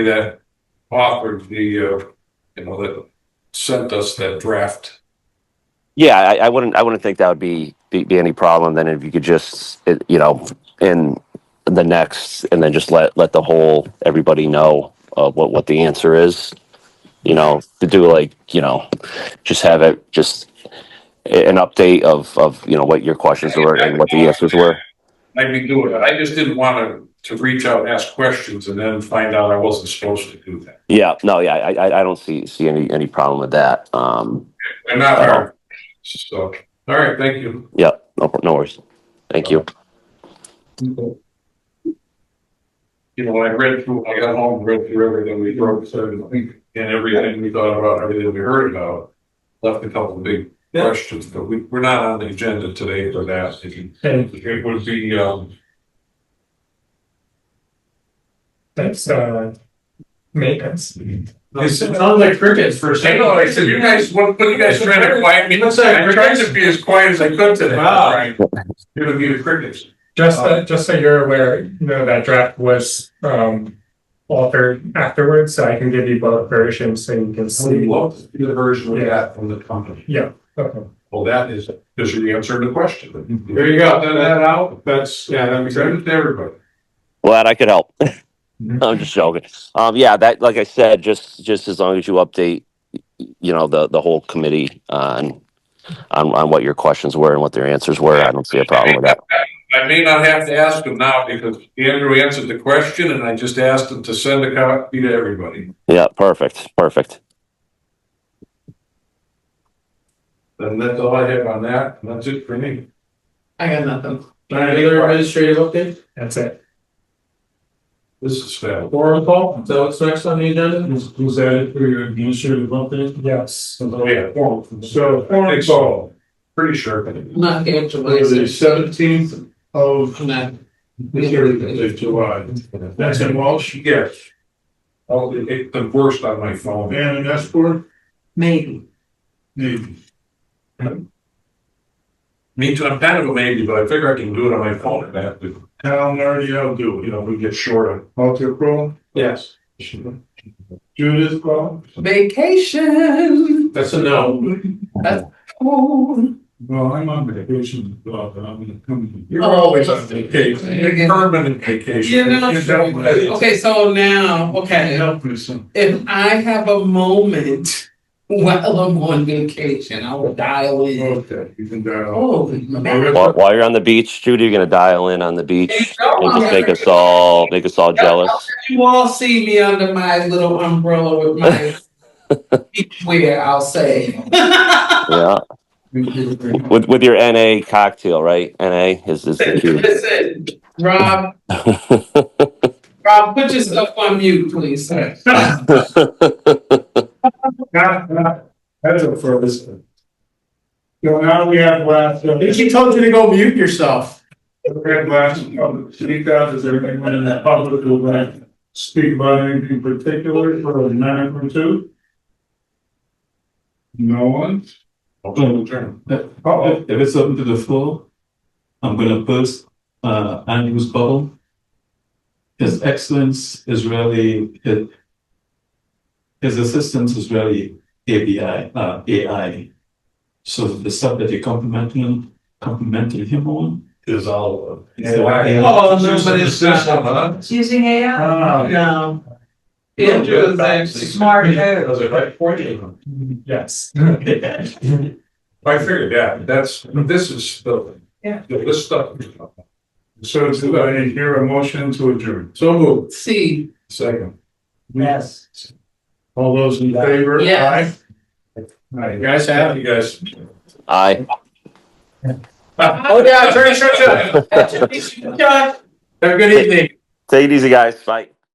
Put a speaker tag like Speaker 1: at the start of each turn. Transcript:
Speaker 1: that offered the, uh, you know, that sent us that draft.
Speaker 2: Yeah, I, I wouldn't. I wouldn't think that would be, be be any problem. Then if you could just, it, you know, in the next, and then just let let the whole everybody know uh, what what the answer is. You know, to do like you know, just have it just a- an update of of you know what your questions were and what the answers were.
Speaker 1: I'd be doing it. I just didn't want to, to reach out and ask questions and then find out I wasn't supposed to do that.
Speaker 2: Yeah, no, yeah, I I I don't see see any any problem with that. Um,
Speaker 1: And not her. So, all right, thank you.
Speaker 2: yeah, no, no worries. Thank you.
Speaker 1: You know, when I read through, I got home, read through everything we wrote, so, and everything we thought about, everything we heard about. Left a couple of big
Speaker 3: Yeah.
Speaker 1: questions, but we, we're not on the agenda today for that. If you-
Speaker 3: And
Speaker 1: It would be, um,
Speaker 3: that's uh maintenance. It
Speaker 1: I
Speaker 3: sounds like crickets for a second.
Speaker 1: know, I said, you guys, what, what are you guys trying to quiet me? I tried to be as quiet as I could today.
Speaker 3: Wow.
Speaker 1: Right. You're gonna be the crickets.
Speaker 3: Just
Speaker 4: Uh,
Speaker 3: that, just so you're aware, you know, that draft was um altered afterwards, so I can give you both versions so you
Speaker 1: We
Speaker 3: can
Speaker 4: Oh,
Speaker 3: see.
Speaker 1: love to see the version we
Speaker 3: Yeah.
Speaker 1: got from the company.
Speaker 3: Yeah, okay.
Speaker 1: Well, that is, is the answer to the question.
Speaker 3: Mhm.
Speaker 1: There you go, that, that out, that's, yeah, that makes sense to everybody.
Speaker 2: Glad I could help.
Speaker 3: Mhm.
Speaker 2: I'm just joking. Um, yeah, that like I said, just just as long as you update, you know, the the whole committee on on on what your questions were and what their answers were, I don't see a problem with that.
Speaker 1: I may not have to ask him now because Andrew answered the question and I just asked him to send a copy to everybody.
Speaker 2: Yeah, perfect, perfect.
Speaker 1: And that's all I have on that, and that's it for me.
Speaker 5: I got nothing.
Speaker 1: Any other
Speaker 5: Regular administrative update,
Speaker 3: That's it.
Speaker 1: This is fair.
Speaker 5: forum call, is that what's next on the agenda?
Speaker 4: Was, was that it for your administrative update?
Speaker 3: Yes.
Speaker 5: Oh,
Speaker 1: Yeah.
Speaker 4: So,
Speaker 1: I think so. Pretty sure. The
Speaker 5: Not actually.
Speaker 4: seventeenth of
Speaker 5: I'm not-
Speaker 4: July. That's in Walsh,
Speaker 1: Yes. Oh, it, it- the worst on my phone.
Speaker 4: Van and Esper,
Speaker 5: Maybe.
Speaker 4: maybe.
Speaker 1: Me too, I'm kind of a maybe, but I figure I can do it on my phone if I have to,
Speaker 4: Town already outdo
Speaker 1: you
Speaker 4: it.
Speaker 1: know, we get short on.
Speaker 4: Alter Pro,
Speaker 1: Yes.
Speaker 4: Judith Pro,
Speaker 5: Vacation.
Speaker 1: That's a no.
Speaker 5: Oh.
Speaker 4: well, I'm on vacation, but I'm gonna come.
Speaker 1: You're always on vacation, You're permanent vacation.
Speaker 5: You're not-
Speaker 1: definitely-
Speaker 5: Okay, so now, okay,
Speaker 4: Help me some.
Speaker 5: if I have a moment while I'm on vacation, I will dial in.
Speaker 4: Okay, you can
Speaker 5: Oh.
Speaker 4: dial.
Speaker 5: Holy man.
Speaker 2: While, while you're on the beach, Judy, you're gonna dial in on the beach and just make us all make us all jealous.
Speaker 5: You all see me under my little umbrella with my beachwear, I'll say.
Speaker 2: Yeah, with with your NA cocktail, right? NA is is the key.
Speaker 5: Listen, Rob, Rob, put yourself on mute, please, sir.
Speaker 4: Not, not, that's a first. So now we have last.
Speaker 5: She told you to go mute yourself.
Speaker 4: Red last, public speak out, is everything went in the public will then speak about anything particular for a minute or two? No one?
Speaker 1: I'll do the term.
Speaker 4: Uh-oh.
Speaker 6: If if it's open to the floor, I'm gonna post uh Andrew's bubble. His excellence is really his. His assistance is really ABI, uh AI. So the stuff that you're complimenting him, complimenting him on.
Speaker 1: Is all.
Speaker 6: is the AI.
Speaker 5: Oh, no, but it's
Speaker 1: System,
Speaker 5: not.
Speaker 1: huh?
Speaker 7: Using
Speaker 3: Uh,
Speaker 7: AI?
Speaker 4: Ah,
Speaker 5: No. Andrew is actually.
Speaker 7: Smart head.
Speaker 1: Was it right for you?
Speaker 3: Yes.
Speaker 1: I figured, yeah, that's, this is the.
Speaker 7: Yeah.
Speaker 1: This stuff.
Speaker 4: so do I hear a motion to adjourn?
Speaker 1: So moved,
Speaker 5: See,
Speaker 1: second.
Speaker 5: yes.
Speaker 4: All those in favor?
Speaker 5: Yes.
Speaker 4: Aye. Aye.
Speaker 1: Guys, have you guys?
Speaker 2: Aye.
Speaker 5: Oh, yeah, Attorney Churchill. Have a good evening.
Speaker 2: Take it easy, guys. Bye.